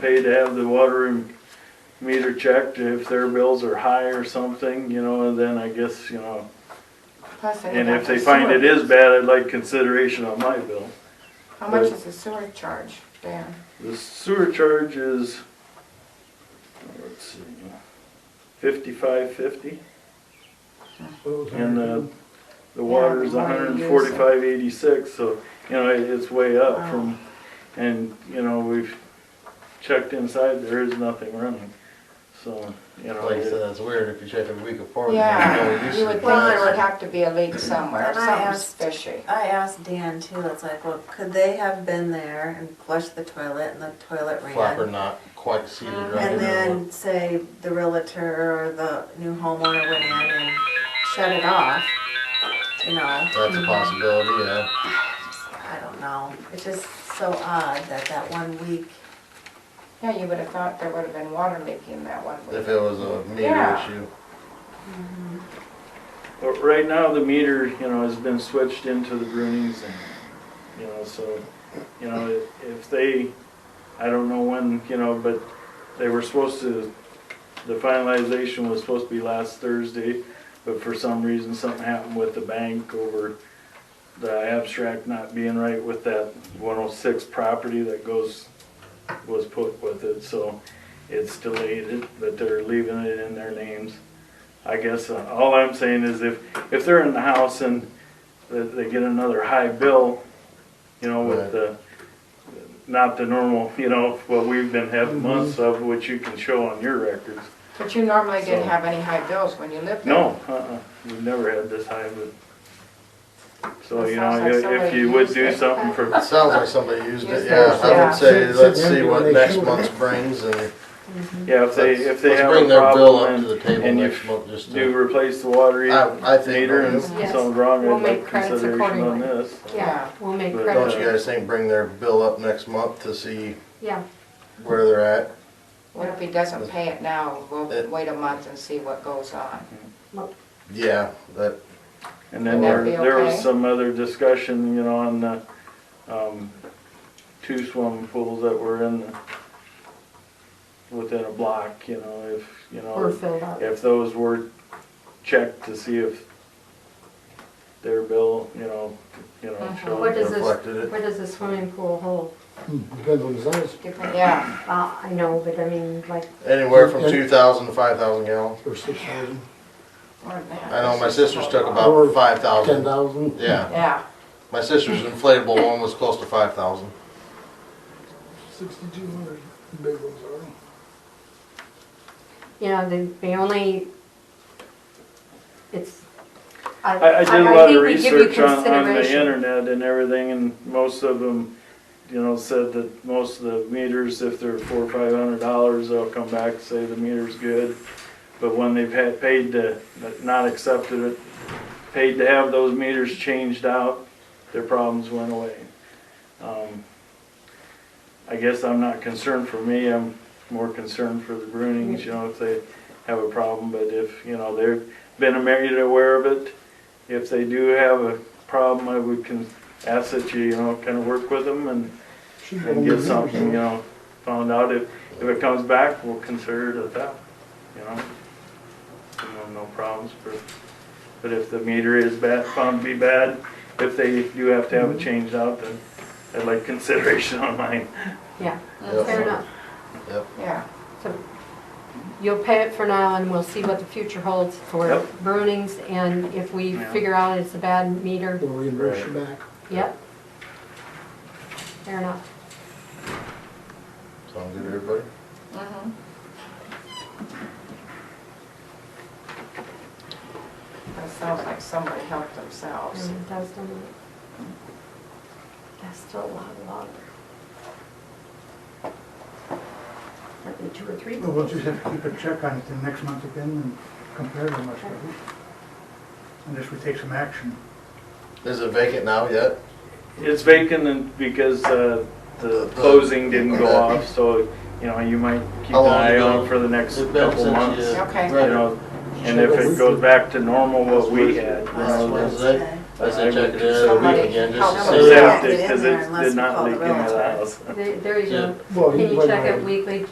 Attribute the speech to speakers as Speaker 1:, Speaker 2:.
Speaker 1: pay to have the water and meter checked if their bills are high or something, you know, and then I guess, you know,
Speaker 2: Plus, they would
Speaker 1: and
Speaker 2: have
Speaker 1: if they
Speaker 2: the
Speaker 1: find it
Speaker 2: sewer.
Speaker 1: is bad, I'd like consideration on my bill.
Speaker 2: How much is the sewer charge, Dan?
Speaker 1: The sewer charge is, let's see, fifty-five fifty, and the, the water's
Speaker 2: Yeah, the water
Speaker 1: hundred
Speaker 2: use.
Speaker 1: and forty-five eighty-six, so, you know, it- it's way up from, and, you know, we've checked inside, there is nothing running, so, you know.
Speaker 3: Like I
Speaker 1: it-
Speaker 3: said, that's weird if you check every week apart.
Speaker 2: Yeah, you would think
Speaker 4: Well,
Speaker 2: there would have to be a leak somewhere,
Speaker 4: And I
Speaker 2: something's
Speaker 4: asked-
Speaker 2: fishy.
Speaker 4: I asked Dan too, it's like, well, could they have been there and flushed the toilet and the toilet
Speaker 3: Flapper
Speaker 4: ran?
Speaker 3: not quite seated right
Speaker 4: And
Speaker 3: there.
Speaker 4: then say the realtor or the new homeowner went in and shut it off, you know?
Speaker 3: That's a possibility, yeah.
Speaker 4: I don't know, it's just so odd that that one week,
Speaker 2: Yeah, you would have thought there would have been water leaking that one week.
Speaker 3: If it was a meter
Speaker 2: Yeah.
Speaker 3: issue.
Speaker 1: But right now, the meter, you know, has been switched into the Brunings and, you know, so, you know, if- if they, I don't know when, you know, but they were supposed to, the finalization was supposed to be last Thursday, but for some reason, something happened with the bank over the abstract not being right with that one oh six property that goes, was put with it, so it's delayed, it, but they're leaving it in their names. I guess uh, all I'm saying is if, if they're in the house and th- they get another high bill, you know, with
Speaker 3: Right.
Speaker 1: the, not the normal, you know, what we've been having months of, which you can show on your records.
Speaker 2: But you normally didn't
Speaker 1: So-
Speaker 2: have any high bills when you lived there.
Speaker 1: No, uh-uh, we've never had this high, but, so,
Speaker 2: That
Speaker 1: you know,
Speaker 2: sounds like
Speaker 1: i- if
Speaker 2: somebody
Speaker 1: you would
Speaker 2: used
Speaker 1: do
Speaker 2: it.
Speaker 1: something for,
Speaker 3: It sounds like somebody used it,
Speaker 2: Used
Speaker 3: yeah.
Speaker 2: it,
Speaker 3: I
Speaker 2: yeah.
Speaker 3: would say,
Speaker 5: Sit-
Speaker 3: let's
Speaker 5: sit
Speaker 3: see
Speaker 5: down
Speaker 3: what
Speaker 5: when they
Speaker 3: next
Speaker 5: shoot.
Speaker 3: month brings and.
Speaker 1: yeah, if they,
Speaker 3: let's-
Speaker 1: if they
Speaker 3: let's
Speaker 1: have a
Speaker 3: Bring their bill up to
Speaker 1: problem
Speaker 3: the
Speaker 1: and,
Speaker 3: table
Speaker 1: and
Speaker 3: next
Speaker 1: if
Speaker 3: month, just
Speaker 1: do
Speaker 3: to.
Speaker 1: replace the water
Speaker 3: I- I think
Speaker 1: meter and
Speaker 3: we'll-
Speaker 6: Yes.
Speaker 1: something wrong,
Speaker 6: We'll
Speaker 1: I'd like
Speaker 6: make credits
Speaker 1: consideration on
Speaker 6: accordingly.
Speaker 1: this.
Speaker 2: Yeah.
Speaker 6: Yeah, we'll make
Speaker 1: But
Speaker 6: credit.
Speaker 3: Don't you guys think bring their bill up next month to see
Speaker 6: Yeah,
Speaker 3: where they're at?
Speaker 2: What if he doesn't pay it now, we'll
Speaker 3: It-
Speaker 2: wait a month and see what goes on.
Speaker 3: Yeah, that,
Speaker 1: And then
Speaker 2: Would
Speaker 1: there,
Speaker 2: that be
Speaker 1: there was
Speaker 2: okay?
Speaker 1: some other discussion, you know, on the, um, two swimming pools that were in the, within a block, you know, if, you know.
Speaker 6: we're filled up.
Speaker 1: if those were checked to see if their bill, you know, you know,
Speaker 2: Mhm.
Speaker 1: showed.
Speaker 6: Uh-huh. What does this,
Speaker 3: reflected it.
Speaker 6: what does the swimming pool hold?
Speaker 5: Depends on the size,
Speaker 2: Different, yeah,
Speaker 6: Uh, I know, but I mean, like,
Speaker 3: anywhere from
Speaker 5: And-
Speaker 3: two thousand to five thousand gallons.
Speaker 5: or six thousand,
Speaker 2: more than that.
Speaker 3: I know my sister's took about
Speaker 5: Or
Speaker 3: five
Speaker 5: ten
Speaker 3: thousand.
Speaker 5: thousand.
Speaker 3: Yeah,
Speaker 2: Yeah,
Speaker 3: my sister's inflatable one was close to five thousand.
Speaker 5: Sixty-two hundred, big ones are.
Speaker 6: you know, the, the only, it's, I,
Speaker 1: I, I did a
Speaker 6: I- I
Speaker 1: lot of
Speaker 6: think we give you
Speaker 1: research on, on the
Speaker 6: consideration.
Speaker 1: internet and everything, and most of them, you know, said that most of the meters, if they're four, or five hundred dollars, they'll come back and say the meter's good. But when they've had, paid to, not accepted it, paid to have those meters changed out, their problems went away. Um, I guess I'm not concerned for me, I'm more concerned for the Brunings, you know, if they have a problem, but if, you know, they've been married aware of it, if they do have a problem, I would can ask that you, you know, kind of work with them and,
Speaker 5: Should
Speaker 1: and
Speaker 5: be
Speaker 1: get
Speaker 5: on
Speaker 1: something, you
Speaker 5: the-
Speaker 1: know, found out. If, if it comes back, we'll consider it a theft, you know? You know, no problems, but, but if the meter is bad, found to be bad, if they do have to have it changed out, then I'd like consideration on mine.
Speaker 6: yeah,
Speaker 3: Yep.
Speaker 6: fair enough.
Speaker 3: Yep.
Speaker 2: yeah.
Speaker 6: So you'll pay it for now and we'll see what the future holds for
Speaker 1: Yep.
Speaker 6: Brunings and if we
Speaker 1: Yeah.
Speaker 6: figure out it's a bad meter,
Speaker 5: We'll reimburse you back.
Speaker 6: yep. Fair enough.
Speaker 3: Sound good, to everybody?
Speaker 2: Mhm. That sounds like somebody helped themselves.
Speaker 6: Mm, That's the one. That's still a lot of water. Probably two or three.
Speaker 7: Well, we'll just have to keep a check on it then next month again and compare them, I suppose. Unless we take some action.
Speaker 3: Is it vacant now yet?
Speaker 1: It's vacant and because uh, the closing didn't go off, so, you know, you might keep
Speaker 3: How
Speaker 1: an
Speaker 3: long
Speaker 1: eye
Speaker 3: ago?
Speaker 1: on it for the next
Speaker 3: It's been
Speaker 1: couple
Speaker 3: since
Speaker 1: months.
Speaker 3: you-
Speaker 1: You
Speaker 2: Okay.
Speaker 3: Right.
Speaker 1: know, and if it goes back to normal what we had, you
Speaker 3: Last
Speaker 1: know,
Speaker 3: Wednesday.
Speaker 4: Okay.
Speaker 3: I said check it
Speaker 1: I
Speaker 3: in a
Speaker 1: would
Speaker 3: week
Speaker 4: Somebody
Speaker 3: again
Speaker 4: help
Speaker 3: just
Speaker 4: us
Speaker 3: to
Speaker 1: I'd
Speaker 3: see.
Speaker 4: out.
Speaker 1: have to,
Speaker 4: Yeah, get in
Speaker 1: because
Speaker 4: there
Speaker 1: it
Speaker 4: unless
Speaker 1: did
Speaker 4: we
Speaker 1: not
Speaker 4: call the
Speaker 1: leak into the
Speaker 4: realtor.
Speaker 1: house.
Speaker 6: There there you
Speaker 3: Yeah.
Speaker 6: go.
Speaker 5: Well,
Speaker 6: Can you
Speaker 5: wait a
Speaker 6: check
Speaker 5: minute.
Speaker 6: it weekly?